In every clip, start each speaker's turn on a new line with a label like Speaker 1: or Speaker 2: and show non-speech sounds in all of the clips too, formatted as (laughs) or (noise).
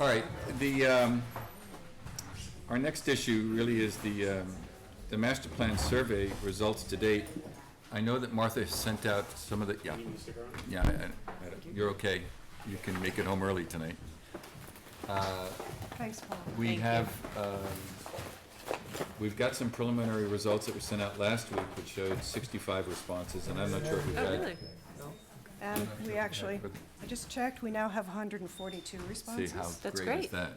Speaker 1: All right, the, um, our next issue really is the, um, the master plan survey results to date. I know that Martha has sent out some of the, yeah. Yeah, I- I- you're okay. You can make it home early tonight. Uh,
Speaker 2: Thanks, Paul.
Speaker 1: We have, um, we've got some preliminary results that were sent out last week, which showed sixty-five responses, and I'm not sure if we've
Speaker 3: Oh,
Speaker 1: had.
Speaker 3: really?
Speaker 2: And we actually,
Speaker 1: But
Speaker 2: I just checked, we now have
Speaker 1: See
Speaker 2: 142
Speaker 1: how
Speaker 2: responses.
Speaker 3: That's
Speaker 1: great is
Speaker 3: great.
Speaker 1: that?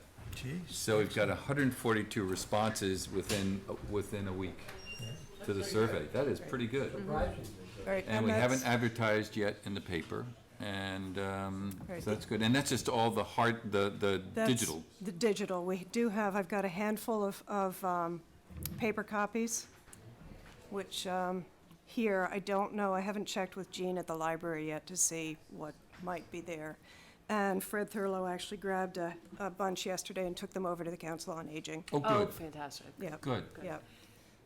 Speaker 1: So we've got hundred and forty-two responses within, within a week to the survey. That is pretty good.
Speaker 2: Right,
Speaker 1: And we haven't
Speaker 2: that's-
Speaker 1: advertised yet in the paper, and, um,
Speaker 2: Right.
Speaker 1: so that's good. And that's just all the hard, the, the
Speaker 2: that's
Speaker 1: digital.
Speaker 2: The digital, we do have, I've got a handful of, of um, paper copies, which um, here, I don't know, I haven't checked with Jean at the library yet to see what might be there. And Fred Thurlow actually grabbed a, a bunch yesterday and took them over to the Council on Aging.
Speaker 1: Oh,
Speaker 3: Oh,
Speaker 1: good,
Speaker 3: fantastic.
Speaker 2: Yeah,
Speaker 1: good.
Speaker 2: yeah.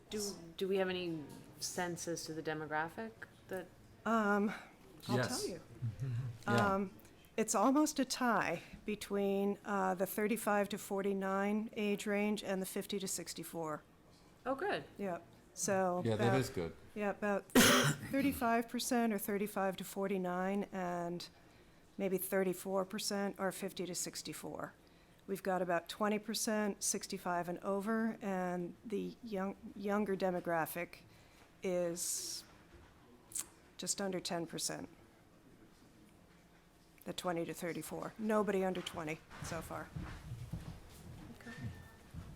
Speaker 3: Do, do we have any sense as to the demographic that,
Speaker 2: Um, I'll
Speaker 1: Yes.
Speaker 2: tell you.
Speaker 1: Yeah.
Speaker 2: Um, It's almost a tie between uh, the 35 to 49 age range and the 50 to 64.
Speaker 3: oh, good.
Speaker 2: Yep, so.
Speaker 1: Yeah, that
Speaker 2: about-
Speaker 1: is good.
Speaker 2: Yeah, about 35% or 35 to 49 and maybe 34% are 50 to 64. We've got about 20% 65 and over, and the young, younger demographic is just under 10%. The 20 to 34. Nobody under 20 so far.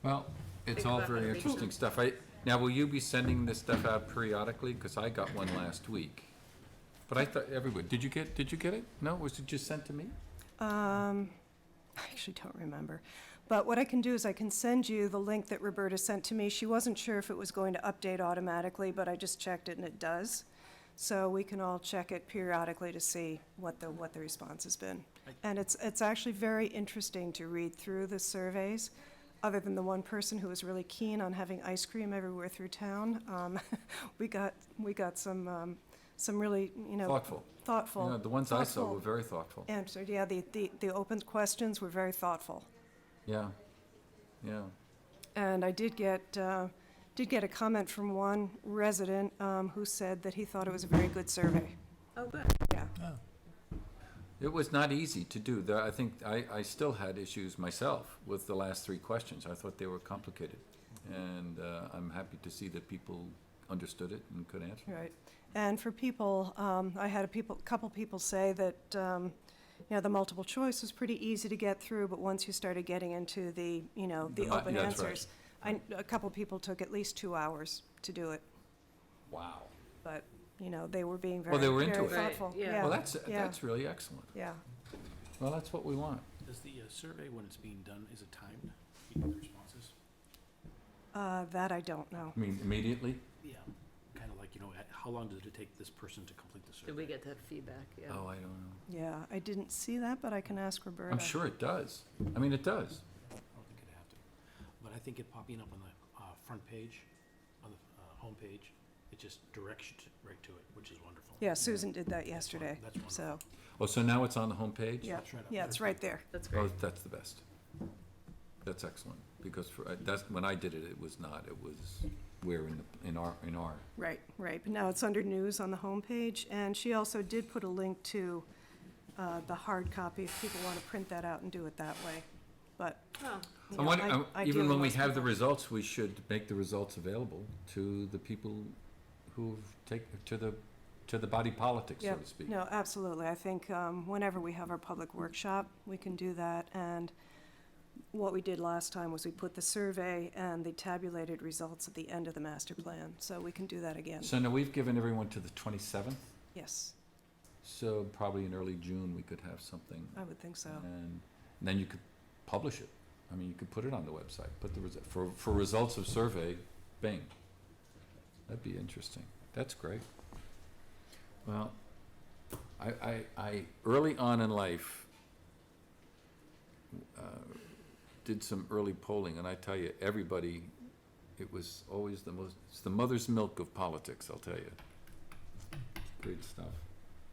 Speaker 1: Well, it's
Speaker 3: Think
Speaker 1: all
Speaker 3: about that,
Speaker 1: very
Speaker 3: make
Speaker 1: interesting stuff. I, now, will you be sending this stuff out periodically? Because I got one last week. But I thought everybody, did you get, did you get it? No, was it just sent to me?
Speaker 2: Um, I actually don't remember. But what I can do is I can send you the link that Roberta sent to me. She wasn't sure if it was going to update automatically, but I just checked it and it does. So we can all check it periodically to see what the, what the response has been. And it's, it's actually very interesting to read through the surveys, other than the one person who was really keen on having ice cream everywhere through town. Um, (laughs) we got, we got some, um, some really, you know.
Speaker 1: Thoughtful. You
Speaker 2: Thoughtful.
Speaker 1: know, the ones I saw
Speaker 2: thoughtful
Speaker 1: were very thoughtful.
Speaker 2: answered, yeah, the, the, the open questions were very thoughtful.
Speaker 1: Yeah, yeah.
Speaker 2: And I did get, uh, did get a comment from one resident, um, who said that he thought it was a very good survey.
Speaker 3: Oh, good.
Speaker 2: Yeah,
Speaker 1: It was not easy to do. There, I think, I, I still had issues myself with the last three questions. I thought they were complicated. And, uh, I'm happy to see that people understood it and could answer.
Speaker 2: right. And for people, um, I had a people, couple people say that, um, you know, the multiple choice was pretty easy to get through, but once you started getting into the, you know, the
Speaker 1: The mi-
Speaker 2: open
Speaker 1: yeah, that's right.
Speaker 2: answers. I, a couple people took at least two hours to do it,
Speaker 1: Wow.
Speaker 2: but, you know, they were being very,
Speaker 1: Well, they were into
Speaker 2: very
Speaker 1: it.
Speaker 3: Right,
Speaker 2: thoughtful.
Speaker 3: yeah.
Speaker 1: Well, that's,
Speaker 2: yeah,
Speaker 1: that's really excellent.
Speaker 2: Yeah.
Speaker 1: Well, that's what we want.
Speaker 4: Does the uh, survey, when it's being done, is it timed, you know, the responses?
Speaker 2: Uh, that I don't know.
Speaker 1: I mean, immediately?
Speaker 4: Yeah. Kind of like, you know, at- how long did it take this person to complete the survey?
Speaker 3: Did we get that feedback? Yeah.
Speaker 1: Oh, I don't know.
Speaker 2: Yeah, I didn't see that, but I can ask Roberta.
Speaker 1: I'm sure it does. I mean, it does.
Speaker 4: I don't think it'd have to. But I think it popping up on the uh, front page, on the uh, homepage, it just directs you to- right to it, which is wonderful.
Speaker 2: Yeah, Susan did that yesterday,
Speaker 4: That's wonderful.
Speaker 2: so,
Speaker 1: Oh, so now it's on the homepage?
Speaker 2: yeah,
Speaker 4: it's right up
Speaker 2: yeah,
Speaker 4: there.
Speaker 2: it's right there.
Speaker 3: That's
Speaker 1: Oh,
Speaker 3: great.
Speaker 1: that's the best. That's excellent, because for, I- that's, when I did it, it was not, it was, where in the, in our, in our,
Speaker 2: Right, right, but now it's under news on the homepage, and she also did put a link to uh, the hard copy, if people want to print that out and do it that way, but,
Speaker 3: Oh,
Speaker 1: I
Speaker 2: you know,
Speaker 1: wonder-
Speaker 2: I,
Speaker 1: I-
Speaker 2: I
Speaker 1: uh, even
Speaker 2: deal
Speaker 1: when we
Speaker 2: with most
Speaker 1: have the
Speaker 2: people.
Speaker 1: results, we should make the results available to the people who've take, to the, to the body politic, so
Speaker 2: Yeah,
Speaker 1: to speak.
Speaker 2: No, absolutely, I think um, whenever we have our public workshop, we can do that, and what we did last time was we put the survey and the tabulated results at the end of the master plan, so we can do that again,
Speaker 1: So now we've given everyone to the twenty-seventh,
Speaker 2: yes,
Speaker 1: so probably in early June, we could have something.
Speaker 2: I would think so.
Speaker 1: And then you could publish it. I mean, you could put it on the website, put the, resu- for, for results of survey, bing. That'd be interesting. That's great. Well, I, I, I, early on in life, uh, did some early polling, and I tell you, everybody, it was always the most, it's the mother's milk of politics, I'll tell you. Great stuff.